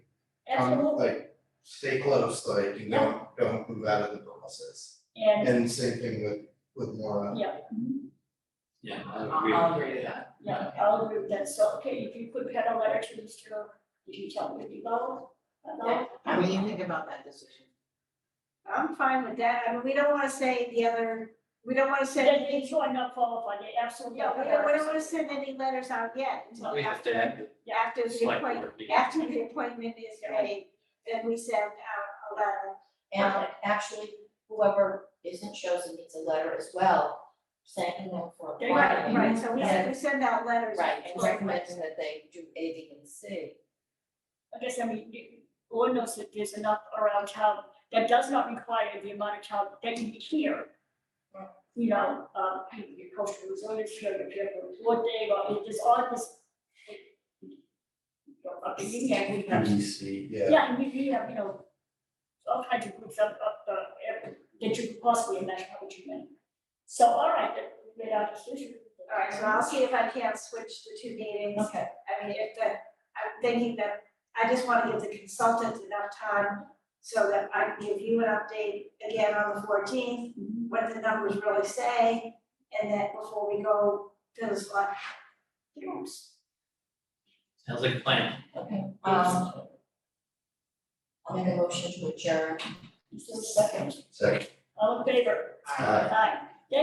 absolutely, Um, like, stay close, like, you don't, don't move out of the premises. and, And same thing with, with Laura. yeah, mhm, Yeah, I'll- I agree. I'll agree to that. yeah, I'll agree with that, so, okay, if you could pen a letter to Mr., did you tell me below? About, What do you think about that decision? I'm fine with that, I mean, we don't wanna say the other, we don't wanna send then any, you are not qualified, they absolutely. yeah, we don't, we don't wanna send any letters out yet until We have to after, have the after the select appointment, board meeting. after the appointment is made, then we send out a letter. And actually, whoever isn't chosen needs a letter as well, saying them for They got it, applying. Right, so we send, we send out letters. Right, and to- recommending that they do A, B, and C. I guess, I mean, you- Lord knows that there's enough around town, that does not require the amount of town that can be here. You know, uh, your cultural resilience, your, your, your, what they, are, it is all this. Uh, You can, we have, EDC, yeah, yeah, and we, we have, you know, all kinds of groups up, up, uh, every- that you could possibly imagine how would you mean. So, all right, then, we made our decision. All right, so I'll see if I can switch the two meetings, Okay. I mean, if the, I'm thinking that, I just wanna give the consultant enough time so that I can give you an update again on the fourteenth, Mhm. what the numbers really say, and then before we go to the select. groups. Sounds like a plan. Okay, um. I'll make a motion to adjourn. Just a second, second. all in favor? Aye. Aye.